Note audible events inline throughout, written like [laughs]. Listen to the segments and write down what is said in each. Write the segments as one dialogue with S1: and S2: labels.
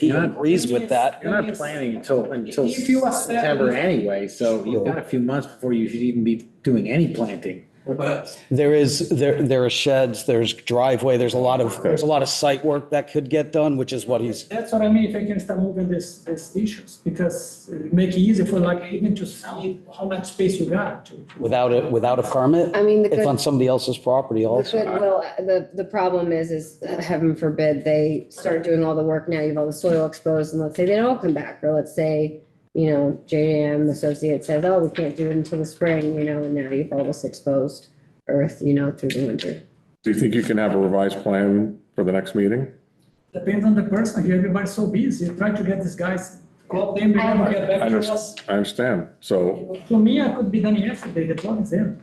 S1: he
S2: You're not-
S1: agrees with that.
S2: You're not planning until, until
S3: If you accept-
S2: September anyway, so you've got a few months before you should even be doing any planting.
S3: But
S1: There is, there, there are sheds, there's driveway, there's a lot of, there's a lot of site work that could get done, which is what he's,
S3: that's what I mean, if I can start moving this, this issues, because it make it easy for like even to sell it, how much space you got to.
S1: without a, without a permit.
S4: I mean, the
S1: It's
S4: good-
S1: on somebody else's property
S4: The
S1: also.
S4: goodwill, the, the problem is, is heaven forbid, they start doing all the work now, you've all the soil exposed, and let's say they don't come back, or let's say, you know, JM Associate says, oh, we can't do it until the spring, you know, and now you've all this exposed earth, you know, through the winter.
S5: Do you think you can have a revised plan for the next meeting?
S3: Depends on the person, here everybody's so busy, trying to get these guys, call them, they never get
S5: I
S3: back to us.
S5: understand, I understand. So,
S3: To me, I could be done yesterday, the plan is in.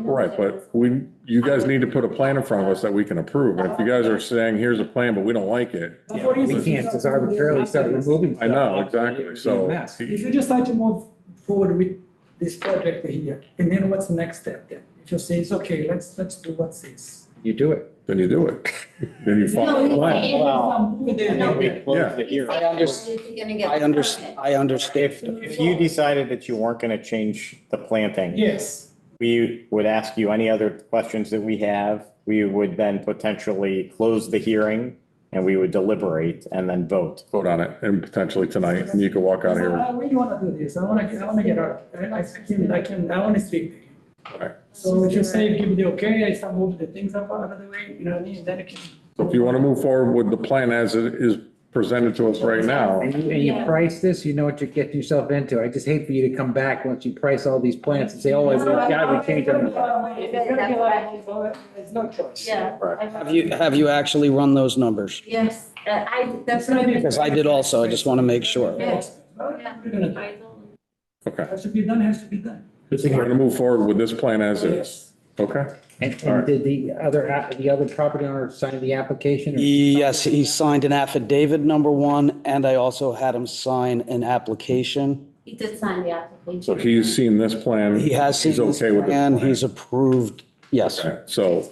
S5: right, but we, you guys need to put a plan in front of us that we can approve. And if you guys are saying, here's a plan, but we don't like it,
S3: That's what it is.
S2: We can't just arbitrarily start removing.
S5: I know,
S2: stuff.
S5: exactly,
S2: It's a
S5: so.
S2: mess.
S3: If you decide to move forward with this project here, and then what's the next step then? If you say it's okay, let's, let's do what's this.
S2: You do it.
S5: Then you do it. [laughs] Then you follow the plan. Yeah.
S6: I understand.
S1: I under, I understand.
S7: If, if you decided that you weren't going to change the planting,
S3: Yes,
S7: we would ask you any other questions that we have. We would then potentially close the hearing and we would deliberate and then vote.
S5: Vote on it and potentially tonight, and you can walk out of here.
S3: I really wanna do this, I wanna, I wanna get out, I I can, I can, I wanna speak.
S5: Alright.
S3: So if you say, give me the okay, I start moving the things up out of the way, you know what I mean, then I can.
S5: So if you want to move forward with the plan as it is presented to us right now,
S2: And you, and you price this, you know what you're getting yourself into. I just hate for you to come back once you price all these plants and say, oh, we've got to change them.
S3: It's gonna be like, well, There's no choice.
S6: Yeah. I-
S1: Have you, have you actually run those numbers?
S6: Yes, uh, I, that's
S3: It's
S6: what
S3: gonna
S6: I
S3: be-
S6: mean.
S1: Because I did also, I just want to make sure.
S6: Yeah.
S3: Well, we're gonna do it.
S6: I don't-
S5: okay.
S3: Has to be done, has to be done.
S5: We're going to move forward with this plan as is. Okay?
S2: And,
S5: All
S2: and
S5: right.
S2: did the other, app- the other property owner sign the application? or-
S1: Yes, he signed an affidavit, number one, and I also had him sign an application.
S6: He did sign the application.
S5: So he's seen this plan.
S1: He has seen
S5: He's
S1: this
S5: okay with it.
S1: and he's approved, yes.
S5: Okay, So,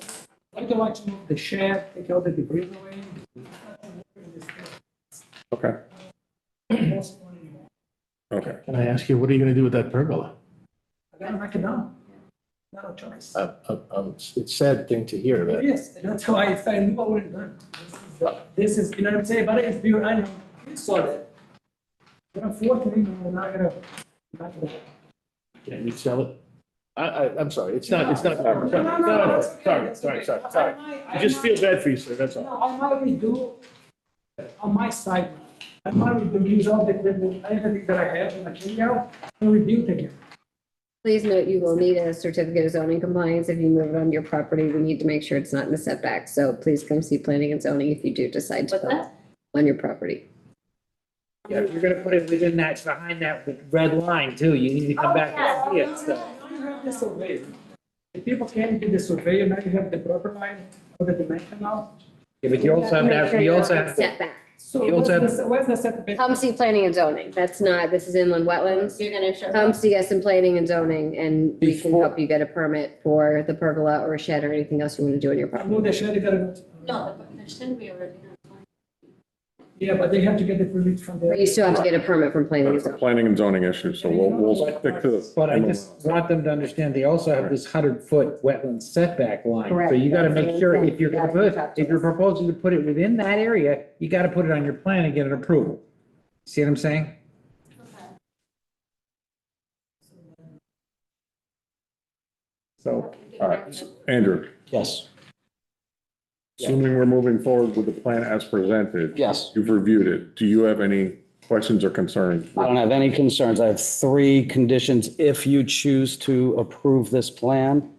S3: I don't want to move the shed, take all the debris away.
S5: okay,
S3: Most one anymore.
S5: okay.
S8: Can I ask you, what are you gonna do with that pergola?
S3: I gotta knock it down. Not a choice.
S8: Uh, uh, um, It's it's a sad thing to hear, but
S3: Yes, that's how I say, no, we're done. This is, you know what I'm saying, but it's pure, I know, you saw that. But unfortunately, we're not gonna, not gonna.
S8: can you sell it? I, I, I'm sorry, it's not, it's not.
S3: No, no, no, that's okay,
S8: Sorry,
S3: that's
S8: sorry,
S3: okay.
S8: sorry,
S3: I-
S8: sorry.
S3: I might-
S8: I
S3: I
S8: just
S3: might-
S8: feel bad for you, sir, that's all.
S3: No, I might redo on my side, I might redo, use all the, the- everything that I have in the material, and rebuild again.
S4: Please note, you will need a certificate of zoning compliance if you move it on your property, we need to make sure it's not in the setback, so please come see planning and zoning if you do decide to
S6: What's
S4: go
S6: that?
S4: on your property.
S2: Yeah, if you're gonna put it within that, behind that red line too, you need to
S4: Oh,
S2: come back and see it, so.
S3: Now you have the survey. If people can do the survey, now you have the proper line for the dimension now.
S2: Yeah, but you also have to
S4: Make
S2: have,
S4: sure
S2: you
S4: you're
S2: also
S4: not
S2: have, to-
S4: Setback.
S3: So
S2: You
S3: what's
S2: also
S3: the, what's the setback?
S4: Come see planning and zoning, that's not, this is inland wetlands.
S6: You're gonna show.
S1: Um,
S4: Come see us in planning and zoning and we can help you get a permit for the pergola or a shed or anything else you want to do on your
S3: I
S4: property.
S3: know they should, they gotta go. to-
S6: No, but there shouldn't be already. done.
S3: Yeah, but they have to get the permit from the.
S4: But you still have to get a permit from planning and
S5: That's a
S4: zoning.
S5: planning and zoning issue, so we'll, we'll stick to this.
S2: but I just want them to understand, they also have this hundred foot wetland setback line. So
S4: Correct.
S2: you gotta make sure if you're,
S4: You gotta
S2: gonna
S4: keep up
S2: put-
S4: to
S2: if you're
S4: it.
S2: proposing to put it within that area, you gotta put it on your plan and get an approval. See what I'm saying?
S6: Okay.
S2: So,
S5: All right, Andrew,
S1: Yes,
S5: assuming we're moving forward with the plan as presented,
S1: yes.
S5: you've reviewed it. Do you have any questions or concerns?
S1: I don't have any concerns. I have three conditions if you choose to approve this plan.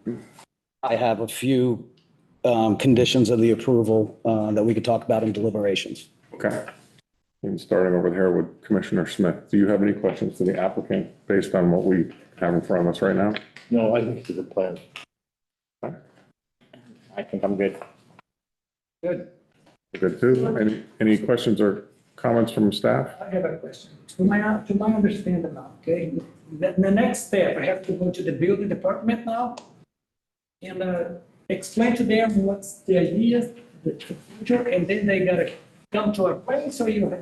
S1: I have a few um, conditions of the approval uh, that we could talk about in deliberations.
S5: Okay. And starting over here with Commissioner Smith, do you have any questions for the applicant based on what we have in front of us right now?
S8: No, I think it's a good plan.
S7: I think I'm good.
S2: good.
S5: Good too. Any, any questions or comments from staff?
S3: I have a question. To my, to my understanding now, okay, the, the next step, I have to go to the building department now and, uh, explain to them what's the idea, the future, and then they gotta come to a place or you